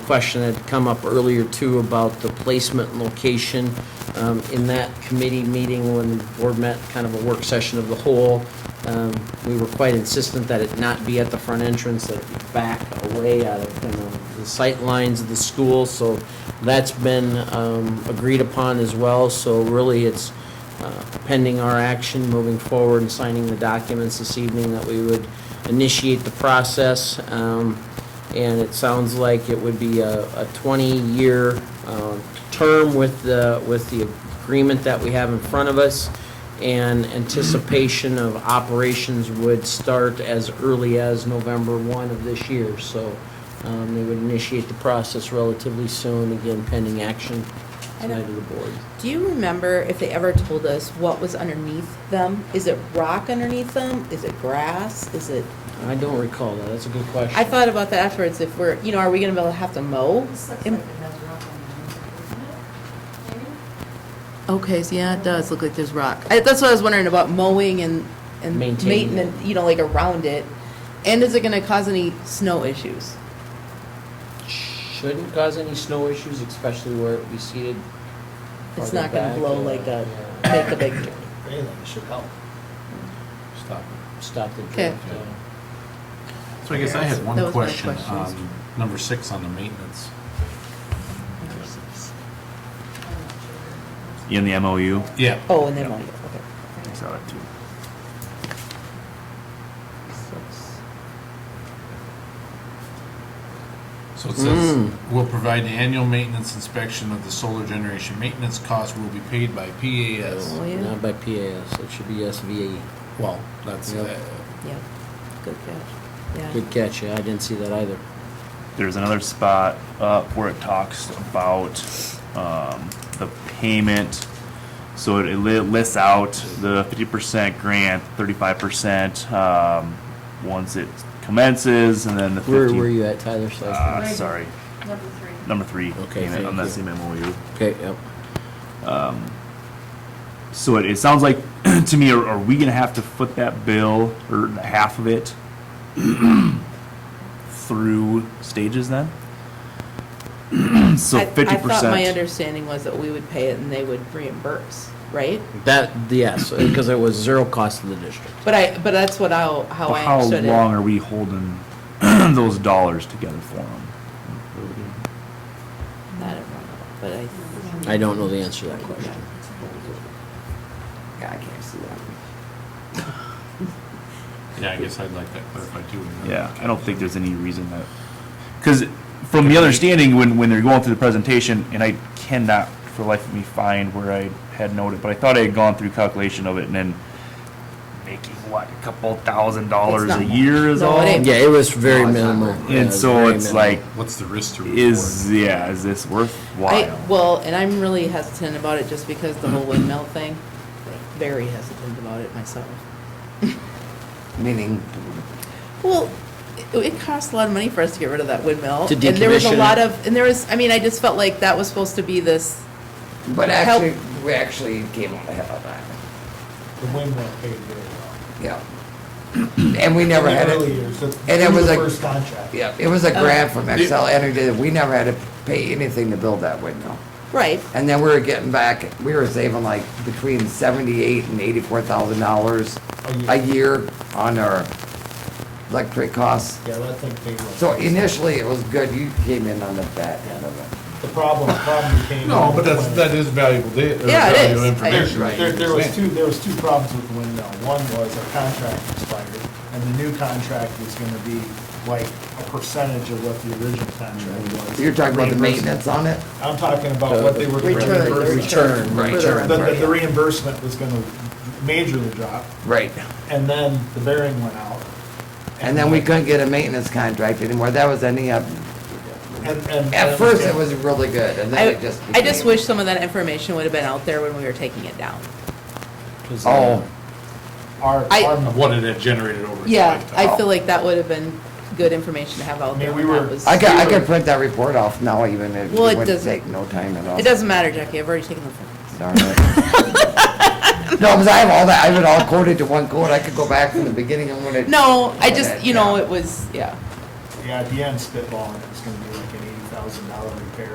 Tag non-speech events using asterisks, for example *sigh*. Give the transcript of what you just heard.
question that had come up earlier too about the placement and location. Um, In that committee meeting, when the board met, kind of a work session of the whole, um, we were quite insistent that it not be at the front entrance, that it be back away out of, you know, the sight lines of the school. So that's been um, agreed upon as well. So really, it's uh, pending our action, moving forward and signing the documents this evening, that we would initiate the process. Um, And it sounds like it would be a a 20-year um, term with the, with the agreement that we have in front of us. And anticipation of operations would start as early as November 1 of this year. So um, they would initiate the process relatively soon, again pending action I don't- tonight of the board. Do you remember if they ever told us what was underneath them? Is it rock underneath them? Is it grass? Is it, I don't recall that. That's a good question. I thought about that afterwards, if we're, you know, are we gonna be able to have to mow? This looks in- like it has rock on it, doesn't it? Okay, so yeah, it does look like there's rock. I, that's what I was wondering about mowing and, and Maintaining it. maintenance, you know, like around it. And is it gonna cause any snow issues? Shouldn't cause any snow issues, especially where it be seated. It's farther not gonna back, blow yeah, like a, yeah. make a big, Anything should help. Stop it. Stop the Okay. drift. yeah. So I guess I had That one was my question, question. um, number six on the maintenance. In the MOU? Yeah. oh, and then mow, okay. I saw it too. So it says, Mm. will provide annual maintenance inspection of the solar generation. Maintenance costs will be paid by PAS. Oh, yeah. Not by PAS, it should be E. SVA. Well, that's, Yep. uh, Yeah, good catch, yeah. Good catch, yeah, I didn't see that either. There's another spot up where it talks about, um, the payment. So it li- lists out the fifty percent grant, thirty-five percent, um, once it commences, and then the fifty. Where were you at, Tyler? So I- Uh, sorry, Number three. number three. Okay, payment On thank that you. same MOU. Okay, yep. Um, So it, it sounds like, *clears throat* to me, are, are we gonna have to foot that bill, or half of it, *clears throat* through stages then? *clears throat* So I- fifty I thought my percent, understanding was that we would pay it and they would reimburse, right? That, yes, because it was zero cost to the district. But I, but that's what I, how I how understood long it. are we holding *clears throat* those dollars together for them? Not at Roundabout, but I, I don't know the answer to that question. yeah, I can't see that. yeah, I guess I'd like that clarified too. and then- Yeah, I don't think there's any reason that, because from the understanding, when, when they're going through the presentation, and I cannot for the life of me find where I had noted, but I thought I had gone through calculation of it and then making what, a couple thousand dollars not a much. year is No, it all? ain't. Yeah, it was very No, it's not. minimal. Yeah, it And was so very it's minimal. like, What's the risk to reward? is, yeah, is this I, worthwhile? well, and I'm really hesitant about it just because the whole windmill thing, very hesitant about it myself. *laughs* Meaning, Well, it, it cost a lot of money for us to get rid of that windmill. To And there was decommission a it. lot of, and there was, I mean, I just felt like that was supposed to be this, but Help. actually, we actually came on the hell of that, The windmill paid very well. yeah. And we never had Early it, years, that's- and it through was the like- First contract. yeah, it was a grant from Uh, Excel Energy, that we never had to pay anything to build that windmill. right, And then we were getting back, we were saving like between seventy-eight and eighty-four thousand dollars A a year on our electric costs. Yeah, that thing paid well. So initially, it was good, you came in on the back end of it. The problem, the problem came. No, but that's, that is valuable data, or Yeah, it valuable is. I- information. There, that you there- there was understand. two, there was two problems with the windmill. One was our contract expired, and the new contract was gonna be like a percentage of what the original contract was. You're talking about the Reimbursement. maintenance on it? I'm talking about what they were. gonna Return, reimburse. return, Right. The, return. the- the reimbursement was gonna majorly drop, Right. and then the bearing went out. And then we couldn't get a maintenance contract anymore, that was ending up, And, and. at first, it was really good, and then I, it just became. I just wish some of that information would have been out there when we were taking it down. 'Cause, uh, Oh, Our, I- our Of what it had generated over. its Yeah, lifetime. I feel like that would have been good information to have out I mean, there. we when that were- was- I could, I could print that report off now, even if it Well, it wouldn't doesn't- take no time at all. It doesn't matter, Jackie, I've already taken the phone. Darn *laughs* it. No, because I have all that, I have it all coded to one code, I could go back from the beginning and when it. No, I when just, it- you know, yeah. it was, yeah. Yeah, at the end spitballing, it was gonna be like an eighty thousand thousand dollar repair